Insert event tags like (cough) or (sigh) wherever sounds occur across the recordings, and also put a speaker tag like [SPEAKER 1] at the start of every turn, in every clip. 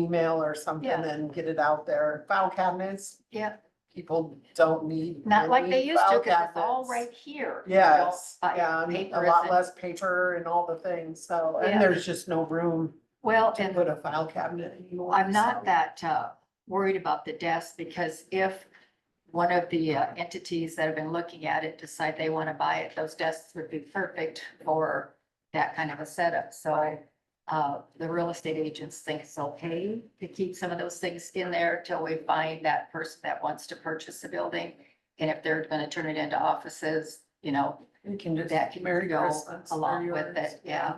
[SPEAKER 1] email or something
[SPEAKER 2] Yeah.
[SPEAKER 1] and get it out there. File cabinets,
[SPEAKER 2] Yeah,
[SPEAKER 1] people don't need.
[SPEAKER 2] not like they
[SPEAKER 1] really
[SPEAKER 2] used to,
[SPEAKER 1] file
[SPEAKER 2] because it's all
[SPEAKER 1] cabinets.
[SPEAKER 2] right here. you know,
[SPEAKER 1] Yes,
[SPEAKER 2] like
[SPEAKER 1] yeah, and a
[SPEAKER 2] paper
[SPEAKER 1] lot
[SPEAKER 2] isn't-
[SPEAKER 1] less paper and all the things, so,
[SPEAKER 2] Yeah.
[SPEAKER 1] and there's just no room
[SPEAKER 2] Well,
[SPEAKER 1] to
[SPEAKER 2] and
[SPEAKER 1] put a file cabinet anymore.
[SPEAKER 2] I'm
[SPEAKER 1] so.
[SPEAKER 2] not that uh, worried about the desk, because if one of the uh, entities that have been looking at it decide they want to buy it, those desks would be perfect for that kind of a setup. So uh, the real estate agents think it's okay to keep some of those things in there till we find that person that wants to purchase the building. And if they're going to turn it into offices, you know,
[SPEAKER 1] You can just.
[SPEAKER 2] that can
[SPEAKER 1] Merry
[SPEAKER 2] go
[SPEAKER 1] Christmas, they're
[SPEAKER 2] along with
[SPEAKER 1] yours,
[SPEAKER 2] it, yeah.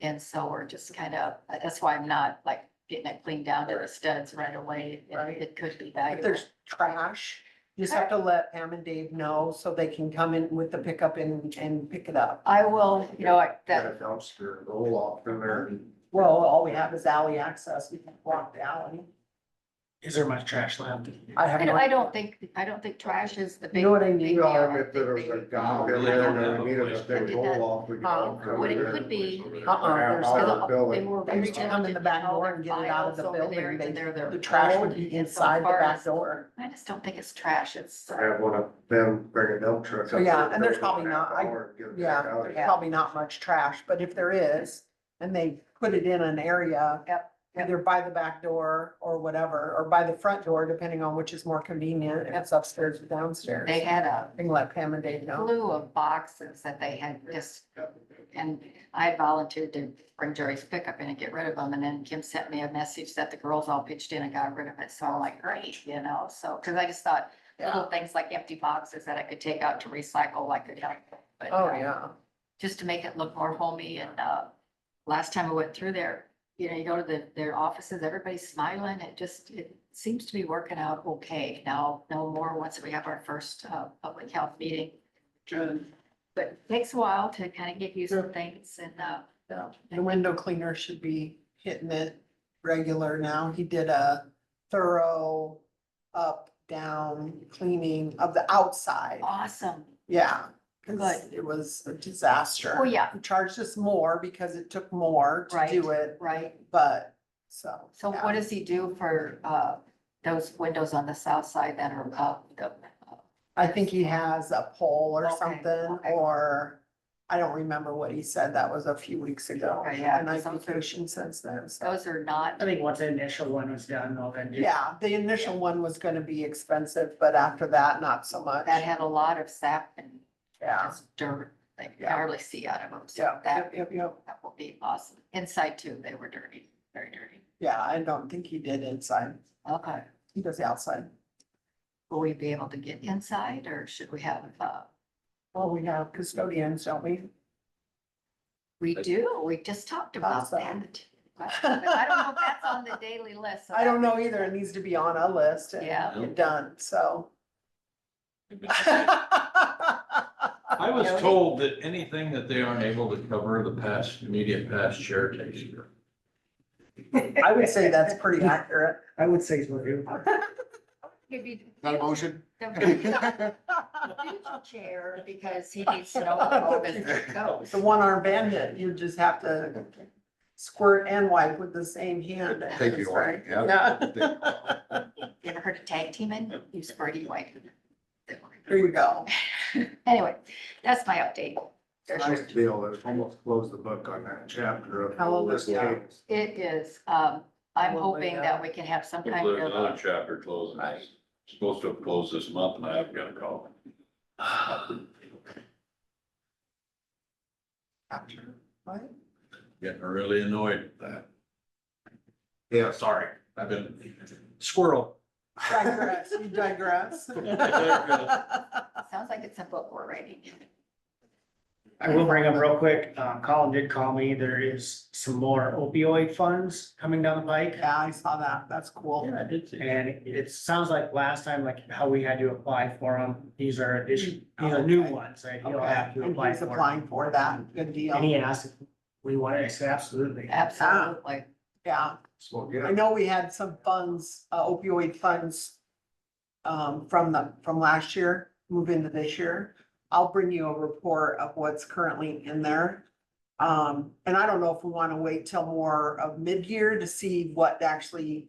[SPEAKER 2] And so we're just kind of, that's why I'm not like getting it cleaned down to the studs right away. It-
[SPEAKER 1] Right.
[SPEAKER 2] It could be
[SPEAKER 1] If
[SPEAKER 2] valuable.
[SPEAKER 1] there's trash, you just have to let Pam and Dave know so they can come in with the pickup and, and pick it up.
[SPEAKER 2] I will, you know, like
[SPEAKER 3] Got a
[SPEAKER 2] that,
[SPEAKER 3] dumpster, roll off from there and
[SPEAKER 1] Well, all we have is alley access, we can walk the alley.
[SPEAKER 4] Is there much trash left?
[SPEAKER 1] I have
[SPEAKER 2] I
[SPEAKER 1] no.
[SPEAKER 2] don't, I don't think, I don't think trash is the big.
[SPEAKER 1] You know what I mean?
[SPEAKER 2] big
[SPEAKER 3] You
[SPEAKER 2] deal.
[SPEAKER 3] know,
[SPEAKER 2] I
[SPEAKER 3] if there was
[SPEAKER 2] think
[SPEAKER 3] a
[SPEAKER 2] they-
[SPEAKER 3] dump in there, and we needed a big roll off, we could. all go
[SPEAKER 2] What it
[SPEAKER 3] there.
[SPEAKER 2] could be.
[SPEAKER 1] Uh-uh, there's
[SPEAKER 3] Out of
[SPEAKER 1] no-
[SPEAKER 3] the
[SPEAKER 2] They
[SPEAKER 3] building.
[SPEAKER 2] were
[SPEAKER 1] They used to
[SPEAKER 2] very
[SPEAKER 1] come in the back
[SPEAKER 2] diligent, all
[SPEAKER 1] door
[SPEAKER 2] their
[SPEAKER 1] and get it out of
[SPEAKER 2] files
[SPEAKER 1] the
[SPEAKER 2] over there,
[SPEAKER 1] building,
[SPEAKER 2] even
[SPEAKER 1] they,
[SPEAKER 2] though they're
[SPEAKER 1] the trash
[SPEAKER 2] old
[SPEAKER 1] would be
[SPEAKER 2] and so
[SPEAKER 1] inside the
[SPEAKER 2] far
[SPEAKER 1] back
[SPEAKER 2] as-
[SPEAKER 1] door.
[SPEAKER 2] I just don't think it's trash. It's,
[SPEAKER 3] I have one of them bring a dump truck. up
[SPEAKER 1] Yeah,
[SPEAKER 3] to the
[SPEAKER 1] and there's
[SPEAKER 3] building
[SPEAKER 1] probably not- I-
[SPEAKER 3] or get it back
[SPEAKER 1] Yeah,
[SPEAKER 3] out.
[SPEAKER 1] there's probably not much trash, but if there is, and they put it in an area.
[SPEAKER 2] Yep, yep.
[SPEAKER 1] Either by the back door or whatever, or by the front door, depending on which is more convenient, if it's upstairs or downstairs.
[SPEAKER 2] they had a
[SPEAKER 1] Thing like Pam and Dave know.
[SPEAKER 2] slew of boxes that they had just, and I volunteered to bring Jerry's pickup in and get rid of them, and then Kim sent me a message that the girls all pitched in and got rid of it, so I'm like, great, you know, so, cause I just thought little things like empty boxes that I could take out to recycle, I could help. but,
[SPEAKER 1] Oh,
[SPEAKER 2] uh,
[SPEAKER 1] yeah.
[SPEAKER 2] Just to make it look more homey, and, uh, last time I went through there, you know, you go to the, their offices, everybody's smiling, it just, it seems to be working out okay. Now, no more, once we have our first, uh, public health meeting,
[SPEAKER 1] Good.
[SPEAKER 2] but it takes a while to kind of get used to things and, uh,
[SPEAKER 1] Yeah, the window cleaner should be hitting it regular now. He did a thorough up, down cleaning of the outside.
[SPEAKER 2] awesome.
[SPEAKER 1] Yeah, cause
[SPEAKER 2] Good.
[SPEAKER 1] it was a disaster.
[SPEAKER 2] Oh, yeah.
[SPEAKER 1] He Charged us more because it took more to
[SPEAKER 2] Right.
[SPEAKER 1] do it,
[SPEAKER 2] Right.
[SPEAKER 1] but so.
[SPEAKER 2] So
[SPEAKER 1] yeah.
[SPEAKER 2] what does he do for, uh, those windows on the south side that are up? the- uh,
[SPEAKER 1] I think he has a pole or
[SPEAKER 2] Okay,
[SPEAKER 1] something,
[SPEAKER 2] okay.
[SPEAKER 1] or I don't remember what he said. That was a few weeks ago.
[SPEAKER 2] Okay, yeah,
[SPEAKER 1] And I've
[SPEAKER 2] some-
[SPEAKER 1] been patient since then, so.
[SPEAKER 2] Those are not,
[SPEAKER 4] I think once the initial one was done, well, then. just-
[SPEAKER 1] Yeah, the initial one was gonna be expensive, but after that, not so much.
[SPEAKER 2] that had a lot of sap and
[SPEAKER 1] Yeah,
[SPEAKER 2] just dirt, like you
[SPEAKER 1] Yeah.
[SPEAKER 2] hardly see out of them. So
[SPEAKER 1] yeah,
[SPEAKER 2] that,
[SPEAKER 1] yep, yep, yep.
[SPEAKER 2] that will be awesome. Inside too, they were dirty, very dirty.
[SPEAKER 1] Yeah, I don't think he did inside.
[SPEAKER 2] Okay.
[SPEAKER 1] He does the outside.
[SPEAKER 2] Will we be able to get inside or should we have, uh,
[SPEAKER 1] Well, we have custodians, don't we?
[SPEAKER 2] we do, we just talked about
[SPEAKER 1] Awesome.
[SPEAKER 2] that. But I don't know if that's on the daily list. so
[SPEAKER 1] I don't
[SPEAKER 2] that-
[SPEAKER 1] know either. It needs to be on a list and
[SPEAKER 2] Yeah.
[SPEAKER 1] get done, so.
[SPEAKER 5] I
[SPEAKER 2] Jody?
[SPEAKER 5] was told that anything that they aren't able to cover the past, immediate past share takes care of.
[SPEAKER 1] I would say (laughs) that's pretty accurate.
[SPEAKER 4] I would say so. too.
[SPEAKER 2] Maybe
[SPEAKER 3] Not a (laughs) motion?
[SPEAKER 2] the future Chair, because he needs to know where all this goes.
[SPEAKER 1] The one arm bandit, you just have to squirt and wipe with the same hand.
[SPEAKER 3] Take your wipe, yeah.
[SPEAKER 1] Yeah.
[SPEAKER 2] You ever heard of tag teaming? You squirty white.
[SPEAKER 1] There you go.
[SPEAKER 2] Anyway, that's my update.
[SPEAKER 3] Nice deal, it's almost closed the book on that chapter of. this
[SPEAKER 1] Hallelujah.
[SPEAKER 3] case.
[SPEAKER 2] It is, um, I'm
[SPEAKER 1] Probably
[SPEAKER 2] hoping
[SPEAKER 1] not.
[SPEAKER 2] that we can have some
[SPEAKER 5] There's
[SPEAKER 2] kind of.
[SPEAKER 5] another chapter closing,
[SPEAKER 1] Right.
[SPEAKER 5] it's supposed to have closed this month and I haven't got a call.
[SPEAKER 1] After, What?
[SPEAKER 5] (sighs) Getting really annoyed with that.
[SPEAKER 3] Yeah,
[SPEAKER 5] Sorry, I've been squirrel.
[SPEAKER 1] Digress, you digress.
[SPEAKER 2] Sounds like it's a book we're writing.
[SPEAKER 4] I will bring up real quick, uh, Colin did call me, there is some more opioid funds coming down the pike.
[SPEAKER 1] Yeah, I saw that. That's cool.
[SPEAKER 5] I did see.
[SPEAKER 4] And it sounds like last time, like how we had to apply for them, these are, these are new ones, right? You'll
[SPEAKER 1] Okay,
[SPEAKER 4] have to
[SPEAKER 1] and
[SPEAKER 4] apply
[SPEAKER 1] he's
[SPEAKER 4] for. 'em.
[SPEAKER 1] applying for that. Good
[SPEAKER 4] And
[SPEAKER 1] deal.
[SPEAKER 4] he asked if we wanted, I said, absolutely.
[SPEAKER 2] Absolutely.
[SPEAKER 1] Yeah,
[SPEAKER 3] so,
[SPEAKER 1] I
[SPEAKER 3] yeah,
[SPEAKER 1] know we had some funds, uh, opioid funds um, from the, from last year, move into this year. I'll bring you a report of what's currently in there. Um, and I don't know if we wanna wait till more of mid-year to see what actually